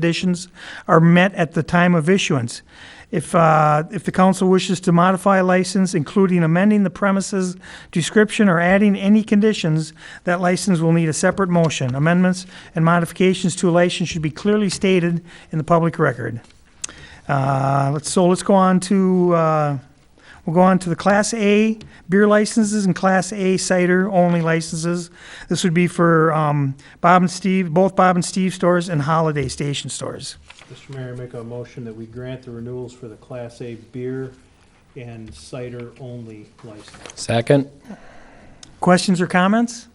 conditions are met at the time of issuance. If, uh, if the council wishes to modify a license, including amending the premises description or adding any conditions, that license will need a separate motion. Amendments and modifications to a license should be clearly stated in the public record. Uh, let's, so let's go on to, uh, we'll go on to the Class A beer licenses and Class A cider only licenses. This would be for, um, Bob and Steve, both Bob and Steve stores and Holiday Station stores. Mr. Mayor, make a motion that we grant the renewals for the Class A beer and cider only license. Second? Questions or comments?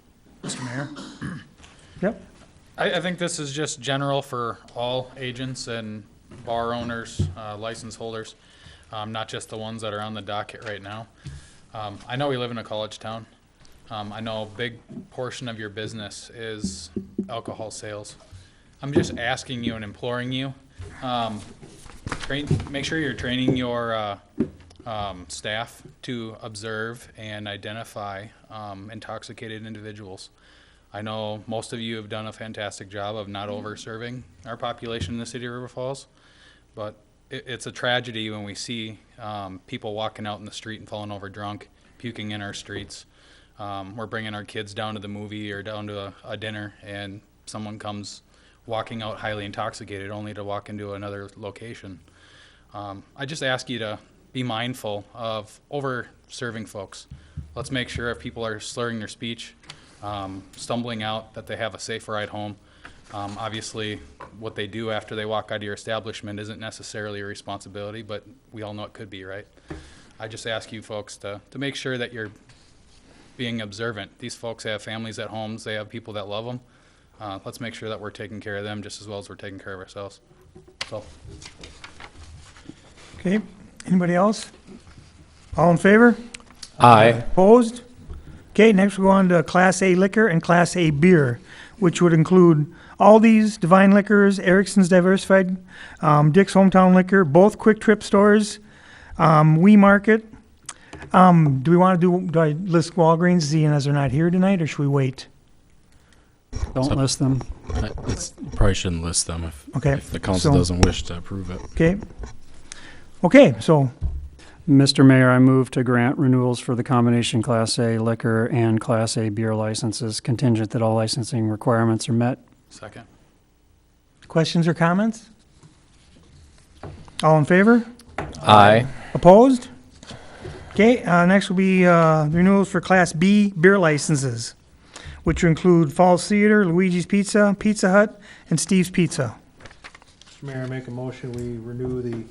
Mr. Mayor? Yep, I, I think this is just general for all agents and bar owners, uh, license holders, um, not just the ones that are on the docket right now. Um, I know we live in a college town. Um, I know a big portion of your business is alcohol sales. I'm just asking you and imploring you, um, train, make sure you're training your, uh, um, staff to observe and identify, um, intoxicated individuals. I know most of you have done a fantastic job of not over-serving our population in the city of River Falls, but it, it's a tragedy when we see, um, people walking out in the street and falling over drunk, puking in our streets. Um, we're bringing our kids down to the movie or down to a, a dinner and someone comes walking out highly intoxicated only to walk into another location. Um, I just ask you to be mindful of over serving folks. Let's make sure if people are slurring their speech, um, stumbling out, that they have a safe ride home. Um, obviously, what they do after they walk out of your establishment isn't necessarily a responsibility, but we all know it could be, right? I just ask you folks to, to make sure that you're being observant. These folks have families at homes, they have people that love them. Uh, let's make sure that we're taking care of them just as well as we're taking care of ourselves. So, okay. Anybody else? All in favor? Aye. Opposed? Okay, next we'll go on to Class A liquor and Class A beer, which would include Aldi's, Divine Liquors, Erickson's Diversified, um, Dick's Hometown Liquor, both Quick Trip stores, um, We Market. Um, do we want to do, do I list Walgreens, Z and S are not here tonight, or should we wait? Don't list them. It's, probably shouldn't list them if, Okay, if the council so- doesn't wish to approve it. okay? Okay, so, Mr. Mayor, I move to grant renewals for the combination Class A liquor and Class A beer licenses contingent that all licensing requirements are met. second. questions or comments? All in favor? Aye. Opposed? Okay, uh, next will be, uh, renewals for Class B beer licenses, which include Falls Theater, Luigi's Pizza, Pizza Hut, and Steve's Pizza. Mr. Mayor, make a motion, we renew the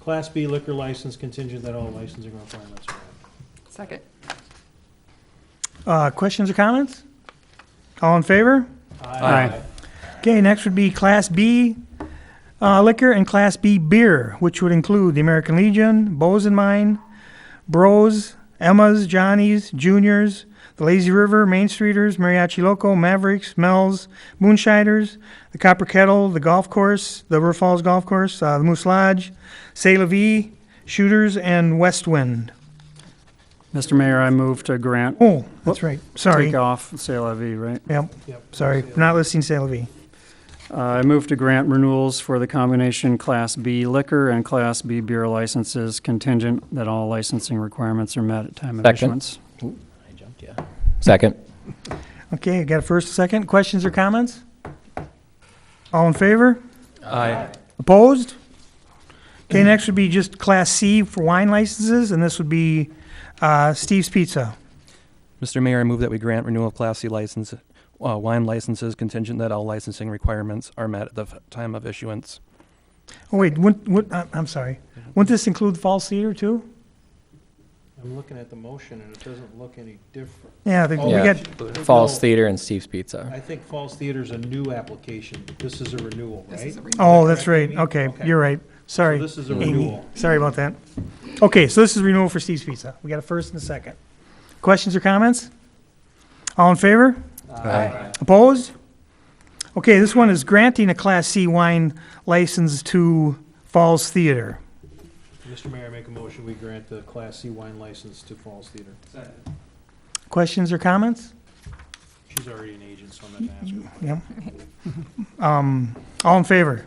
Class B liquor license contingent that all licensing requirements are met. Second. Uh, questions or comments? All in favor? Aye. Okay, next would be Class B uh, liquor and Class B beer, which would include the American Legion, Bows and Mine, Bros, Emma's, Johnny's, Juniors, the Lazy River, Main Streeters, Mariachi Loco, Mavericks, Mel's, Moonshiners, the Copper Kettle, the Golf Course, the River Falls Golf Course, uh, the Moose Lodge, C'est La Vie, Shooters, and West Wind. Mr. Mayor, I move to grant Oh, that's right. Sorry. Take off C'est La Vie, right? Yep, Yep. sorry. Not listing C'est La Vie. Uh, I move to grant renewals for the combination Class B liquor and Class B beer licenses contingent that all licensing requirements are met at time of Second. issuance. Second? Okay, got a first, a second. Questions or comments? All in favor? Aye. Opposed? Okay, next would be just Class C for wine licenses, and this would be uh, Steve's Pizza. Mr. Mayor, I move that we grant renewal of Class C license, uh, wine licenses contingent that all licensing requirements are met at the f- time of issuance. Oh, wait, wouldn't, would- I- I'm sorry. Wouldn't this include Falls Cedar too? I'm looking at the motion and it doesn't look any different. Yeah, I think Oh, we Yeah. got, Falls No, Theater and Steve's Pizza. I think Falls Theater's a new application. This is a renewal, This right? is a renewal. oh, that's right. Okay, you're right. So Sorry. this is a Amy. renewal. Sorry about that. Okay, so this is renewal for Steve's Pizza. We got a first and a second. Questions or comments? All in favor? Aye. Opposed? Okay, this one is granting a Class C wine license to Falls Theater. Mr. Mayor, make a motion, we grant the Class C wine license to Falls Theater. Questions or comments? She's already an agent, so I'm not gonna ask her. Yep. Um, all in favor?